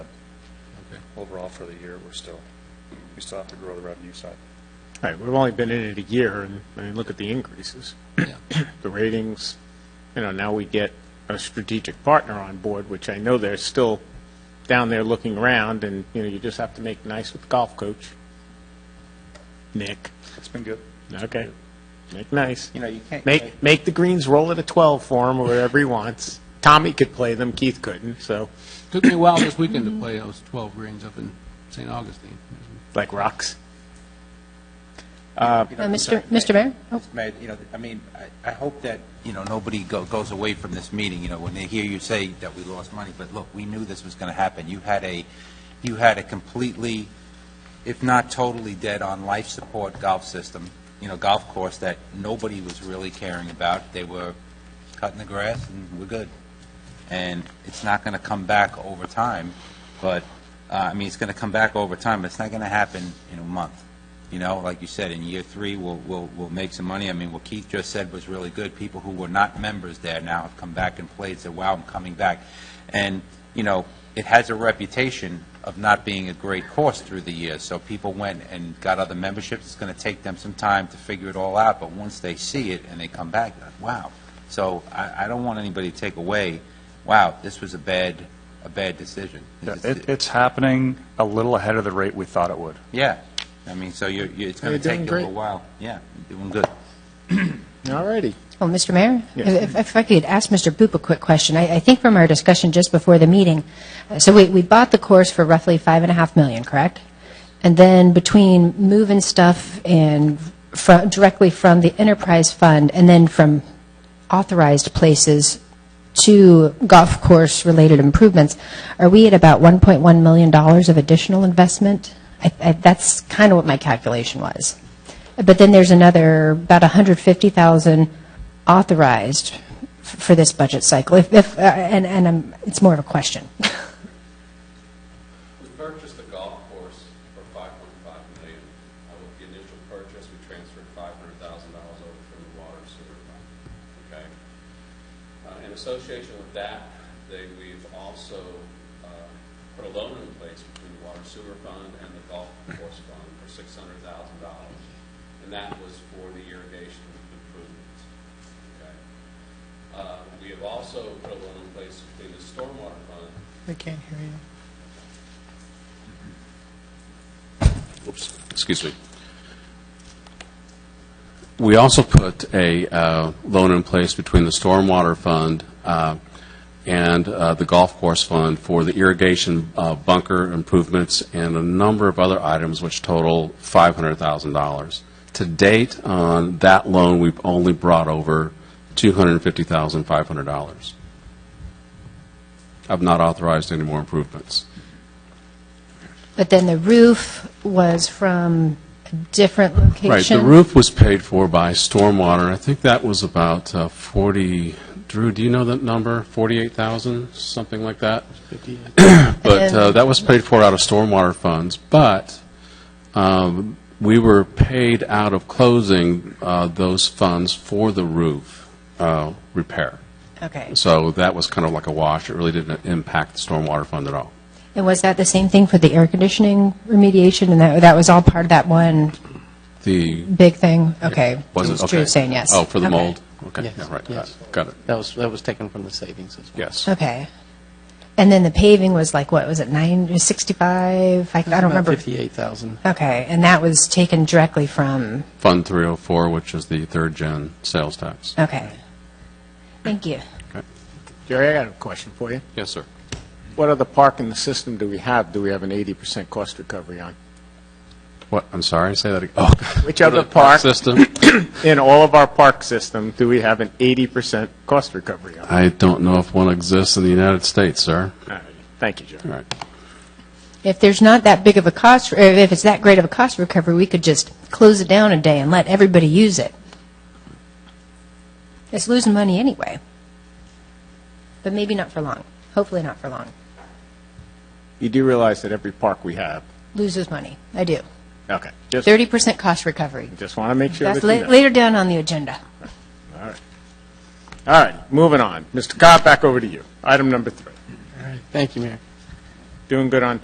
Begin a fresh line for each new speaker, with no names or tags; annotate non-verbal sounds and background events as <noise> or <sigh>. overall for the year, we're still, we still have to grow the revenue side.
Right, we've only been in it a year, and, I mean, look at the increases. <clears throat> The ratings, you know, now we get a strategic partner on board, which I know they're still down there looking around, and, you know, you just have to make nice with the golf coach. Nick,
It's been good.
okay, make nice.
You know, you can't.
Make, make the greens roll at a 12 for him, or whatever he wants. Tommy could play them, Keith couldn't, so,
Took me a while this weekend to play those 12 greens up in St. Augustine.
like rocks.
you know,
Uh, Mr.
sorry.
Mr. Mayor? Oh,
Mayor, you know, I mean, I, I hope that, you know, nobody go, goes away from this meeting, you know, when they hear you say that we lost money, but look, we knew this was going to happen. You had a, you had a completely, if not totally dead on life support golf system, you know, golf course that nobody was really caring about. They were cutting the grass and we're good. And it's not going to come back over time, but, uh, I mean, it's going to come back over time, but it's not going to happen in a month. You know, like you said, in year three, we'll, we'll, we'll make some money. I mean, what Keith just said was really good. People who were not members there now have come back and played, said, wow, I'm coming back. And, you know, it has a reputation of not being a great course through the years. So people went and got other memberships. It's going to take them some time to figure it all out, but once they see it and they come back, they're like, wow. So I, I don't want anybody to take away, wow, this was a bad, a bad decision.
It, it's happening a little ahead of the rate we thought it would.
Yeah. I mean, so you're, you're- it's going
You're
to take
doing
you a little
great.
while. Yeah, you're doing good.
All righty.
Oh, Mr. Mayor?
Yes.
If if I could ask Mr. Boop a quick question. I I think from our discussion just before the meeting, uh, so we we bought the course for roughly five and a half million, correct? And then between moving stuff and fro- directly from the enterprise fund and then from authorized places to golf course-related improvements, are we at about $1.1 million dollars of additional investment? I- I- That's kind of what my calculation was. But then there's another, about 150,000 authorized f- for this budget cycle, if, if, uh, and, and I'm- it's more of a question.
We purchased the golf course for five point five million. Uh, With the initial purchase, we transferred five hundred thousand dollars over from the water and sewer fund, okay? Uh, In association with that, they, we've also uh, put a loan in place between the water and sewer fund and the golf course fund for six hundred thousand dollars. And that was for the irrigation improvements, okay? Uh, We have also put a loan in place between the stormwater fund
I can't hear you.
Oops, excuse me. We also put a uh, loan in place between the Stormwater Fund uh, and uh, the Golf Course Fund for the irrigation uh, bunker improvements and a number of other items which total $500,000. To date, on that loan, we've only brought over $250,500. I've not authorized any more improvements.
But then the roof was from a different location.
Right, the roof was paid for by stormwater, I think that was about uh, 40, Drew, do you know that number? 48,000, something like that? <clears throat> But uh, that was paid for out of stormwater funds, but um, we were paid out of closing uh, those funds for the roof uh, repair.
Okay.
So that was kind of like a wash, it really didn't impact the stormwater fund at all.
And was that the same thing for the air conditioning remediation, and that, that was all part of that one
The,
big thing? Okay.
was
It
it, okay.
Drew saying yes.
Oh, for the
Okay.
mold? Okay,
Yes,
yeah, right,
yes.
got it,
That was, that was taken from the savings as well.
yes.
Okay. And then the paving was like, what, was it nine, 65? I I don't remember.
About 58,000.
Okay, and that was taken directly from,
Fund 304, which is the third-gen sales tax.
okay. Thank you.
Jerry, I got a question for you.
Yes, sir.
What other park in the system do we have, do we have an 80% cost recovery on?
What, I'm sorry, say that again. Oh,
Which other
the
park
park system?
in all of our park system do we have an 80% cost recovery on?
I don't know if one exists in the United States, sir.
All right. Thank you, John.
All right.
If there's not that big of a cost, or if it's that great of a cost recovery, we could just close it down a day and let everybody use it. It's losing money anyway. But maybe not for long. Hopefully not for long.
You do realize that every park we have,
Loses money. I do.
okay, just,
30% cost recovery.
just want to make sure that
That's
you
la-
know.
later down on the agenda.
All right, moving on. Mr. Cobb, back over to you. Item number three.
All right. Thank you, Mayor.
Doing good on